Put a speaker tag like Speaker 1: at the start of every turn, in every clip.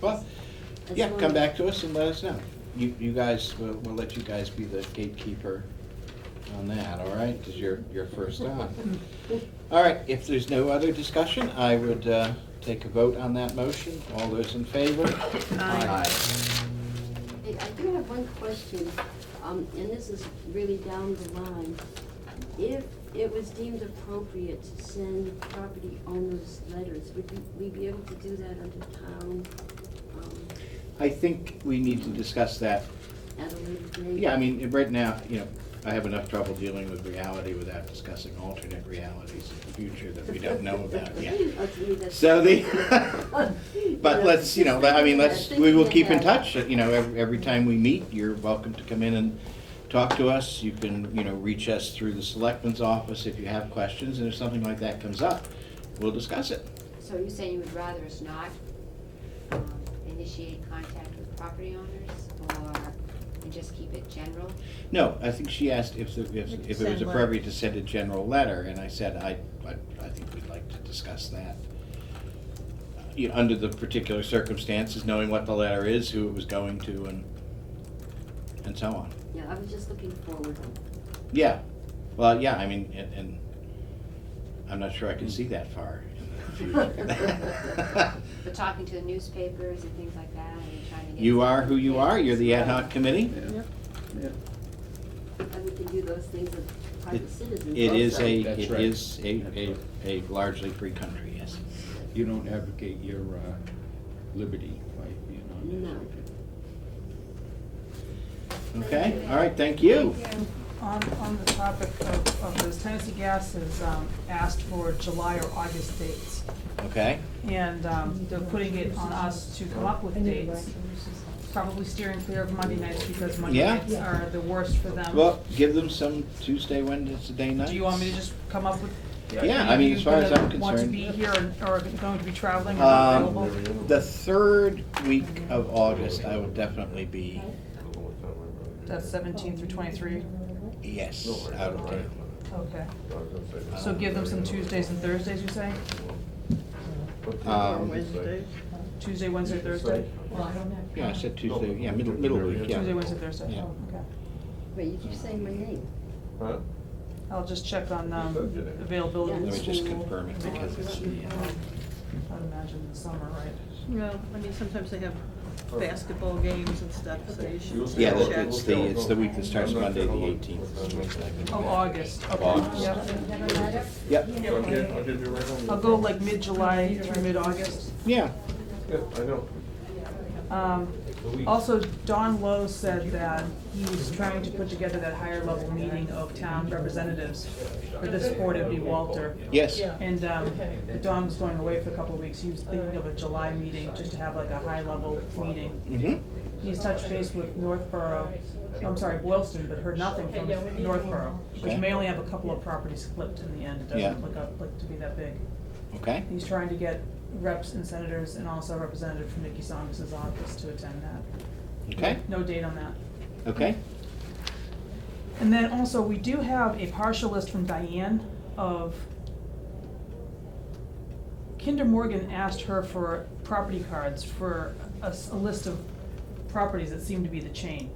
Speaker 1: But,
Speaker 2: As
Speaker 1: yeah,
Speaker 2: long-
Speaker 1: come back to us and let us know. You, you guys, we'll, we'll let you guys be the gatekeeper on that, all right? Because you're, you're first on. All right, if there's no other discussion, I would uh, take a vote on that motion. All those in favor?
Speaker 3: Aye.
Speaker 2: Hey, I do have one question, um, and this is really down the line. If it was deemed appropriate to send property owners letters, would we, we be able to do that under town, um,
Speaker 1: I think we need to discuss that.
Speaker 2: at a later date?
Speaker 1: Yeah, I mean, right now, you know, I have enough trouble dealing with reality without discussing alternate realities in the future that we don't know about yet.
Speaker 2: Oh, to me, that's-
Speaker 1: So the,
Speaker 2: You
Speaker 1: but
Speaker 2: know,
Speaker 1: let's, you know,
Speaker 2: just
Speaker 1: I
Speaker 2: thinking
Speaker 1: mean, let's,
Speaker 2: ahead,
Speaker 1: we will
Speaker 2: thinking
Speaker 1: keep in
Speaker 2: ahead.
Speaker 1: touch, you know, every, every time we meet, you're welcome to come in and talk to us. You can, you know, reach us through the selectman's office if you have questions, and if something like that comes up, we'll discuss it.
Speaker 4: So you're saying you would rather us not um, initiate contact with property owners or and just keep it general?
Speaker 1: No, I think she asked if, the- if, if it was
Speaker 3: Send letter.
Speaker 1: appropriate to send a general letter, and I said, I, I, I think we'd like to discuss that. Uh, You, know, under the particular circumstances, knowing what the letter is, who it was going to, and, and so on.
Speaker 2: Yeah, I was just looking forward.
Speaker 1: Yeah, well, yeah, I mean, and, and I'm not sure I can see that far in the
Speaker 4: But
Speaker 1: future.
Speaker 4: talking to the newspapers and things like that and trying to get.
Speaker 1: You are who you are, you're the ad hoc committee.
Speaker 3: Yep.
Speaker 2: And we can do those things as private citizens
Speaker 1: It is
Speaker 2: also.
Speaker 1: a,
Speaker 5: That's
Speaker 1: it
Speaker 5: right.
Speaker 1: is a,
Speaker 5: That's
Speaker 1: a,
Speaker 5: right.
Speaker 1: a largely free country, yes.
Speaker 5: You don't advocate your uh, liberty by being on this.
Speaker 2: No.
Speaker 5: okay.
Speaker 1: Okay, all right, thank you.
Speaker 3: On, on the topic of, of those, Tennessee Gas has, um, asked for July or August dates.
Speaker 1: Okay,
Speaker 3: And, um, they're putting it on us to come up with dates, probably steering clear of Monday nights because Monday
Speaker 1: Yeah.
Speaker 3: nights are the worst for them.
Speaker 1: well, give them some Tuesday, Wednesday nights.
Speaker 3: Do you want me to just come up with?
Speaker 1: Yeah, I mean, as far as I'm concerned.
Speaker 3: Want to be here and- or going to be traveling and
Speaker 1: Um,
Speaker 3: available?
Speaker 1: The third week of August, I will definitely be,
Speaker 3: That's seventeen through twenty-three,
Speaker 1: yes, out of town.
Speaker 3: okay. Oh. So give them some Tuesdays and Thursdays, you say?
Speaker 1: Um,
Speaker 3: Tuesday, Wednesday, Thursday?
Speaker 6: Well, I don't have.
Speaker 1: Yeah, I said Tuesday, yeah, middle, middle week, yeah.
Speaker 3: Tuesday, Wednesday, Thursday,
Speaker 1: Yeah.
Speaker 3: oh, okay.
Speaker 2: Wait, you keep saying my name.
Speaker 6: Huh?
Speaker 3: I'll just check on, um, availability
Speaker 1: Let
Speaker 3: in
Speaker 1: me
Speaker 3: school.
Speaker 1: just confirm it because it's the, uh,
Speaker 3: I'd imagine in the summer, right?
Speaker 7: Well, I mean, sometimes they have basketball games and stuff, so you should.
Speaker 1: yeah,
Speaker 7: check.
Speaker 1: that- it's the, it's the week that starts Monday, the eighteenth.
Speaker 3: Oh, August, okay.
Speaker 1: August.
Speaker 3: Yep.
Speaker 1: Yep,
Speaker 6: I'll get, I'll get you right on.
Speaker 3: I'll go like mid-July through mid-August.
Speaker 1: yeah,
Speaker 6: Yeah, I know.
Speaker 3: Um, also, Don Lowe said that he was trying to put together that higher level meeting of town representatives. For this board, it'd be Walter.
Speaker 1: yes,
Speaker 3: And, um, Don was going away for a couple of weeks, he was thinking of a July meeting, just to have like a high level meeting.
Speaker 1: mhm,
Speaker 3: He's touched base with Northborough, I'm sorry, Boylston, but heard nothing from Northborough, which may only have a couple of properties flipped in the end, it
Speaker 1: Yeah.
Speaker 3: doesn't look up, look to be that big.
Speaker 1: okay,
Speaker 3: He's trying to get reps and senators and also a representative from Nikki Saunders' office to attend that.
Speaker 1: okay,
Speaker 3: No date on that.
Speaker 1: okay,
Speaker 3: And then also, we do have a partial list from Diane of, Kinder Morgan asked her for property cards for a, s- a list of properties that seem to be the chain,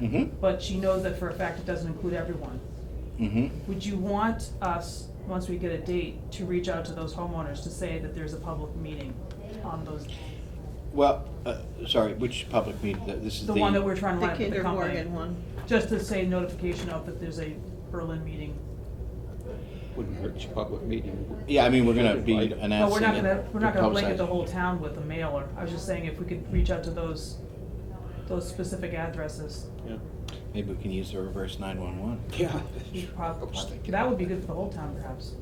Speaker 1: mhm,
Speaker 3: but she knows that for a fact it doesn't include everyone.
Speaker 1: mhm.
Speaker 3: Would you want us, once we get a date, to reach out to those homeowners to say that there's a public meeting on those,
Speaker 1: Well, uh, sorry, which public meeting, Th- this is the.
Speaker 3: the one that we're trying to
Speaker 7: The
Speaker 3: line up with the
Speaker 7: Kinder
Speaker 3: company?
Speaker 7: Morgan one.
Speaker 3: Just to say notification of that there's a Berlin meeting.
Speaker 5: Wouldn't hurt your public meeting.
Speaker 1: Yeah, I mean, we're gonna be
Speaker 5: Invite 'em.
Speaker 1: announcing it.
Speaker 3: But we're not gonna, we're not gonna blanket
Speaker 1: publicize-
Speaker 3: the whole town with a mailer, I was just saying if we could reach out to those, those specific addresses,
Speaker 1: Maybe we can use the reverse nine-one-one.
Speaker 5: Yeah.
Speaker 3: we prob- that would be good for the whole town perhaps.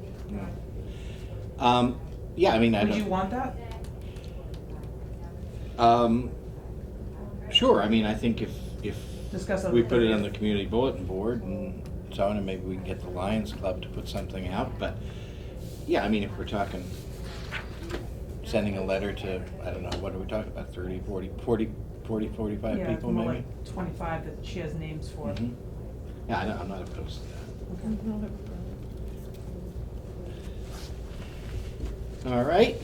Speaker 1: Um, yeah, I mean, I don't.
Speaker 3: Would you want that?
Speaker 1: Um, sure, I mean, I think if, if
Speaker 3: Discuss on
Speaker 1: we
Speaker 3: the
Speaker 1: put it on the
Speaker 3: 30th.
Speaker 1: community bulletin board and so on, and maybe we can get the Lions Club to put something out, but, yeah, I mean, if we're talking, sending a letter to, I don't know, what are we talking about, thirty, forty, forty, forty, forty-five
Speaker 3: Yeah,
Speaker 1: people
Speaker 3: more
Speaker 1: maybe?
Speaker 3: like Twenty-five that she has names for.
Speaker 1: Mhm. Yeah, I know, I'm not opposed to
Speaker 3: Okay.
Speaker 1: that. All right,